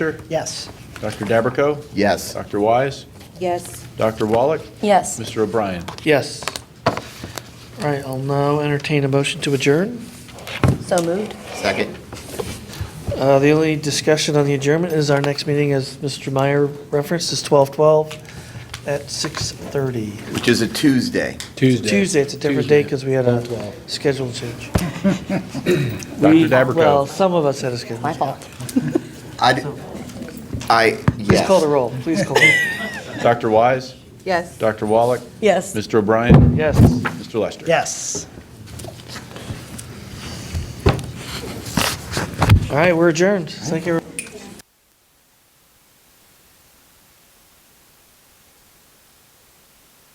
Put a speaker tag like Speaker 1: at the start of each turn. Speaker 1: Yes.
Speaker 2: Dr. Dabberco?
Speaker 3: Yes.
Speaker 2: Dr. Wise?
Speaker 4: Yes.
Speaker 2: Dr. Wallach?
Speaker 4: Yes.
Speaker 2: Mr. O'Brien?
Speaker 1: Yes. All right, I'll now entertain a motion to adjourn.
Speaker 4: So moved.
Speaker 3: Second.
Speaker 1: Uh, The only discussion on the adjournment is our next meeting, as Mr. Meyer referenced, is 12/12 at 6:30.
Speaker 3: Which is a Tuesday.
Speaker 2: Tuesday.
Speaker 1: Tuesday, it's a different day because we had a schedule change.
Speaker 2: Dr.
Speaker 1: Well,
Speaker 2: Dabberco?
Speaker 1: some of us had a schedule.
Speaker 4: My
Speaker 1: change.
Speaker 4: fault.
Speaker 3: I, d- I, yes.
Speaker 1: Please call the roll, please call. the roll.
Speaker 2: Dr. Wise?
Speaker 4: Yes.
Speaker 2: Dr. Wallach?
Speaker 4: Yes.
Speaker 2: Mr. O'Brien?
Speaker 1: Yes.
Speaker 2: Mr. Lester?
Speaker 1: Yes. All right, we're adjourned. Thank you. everyone.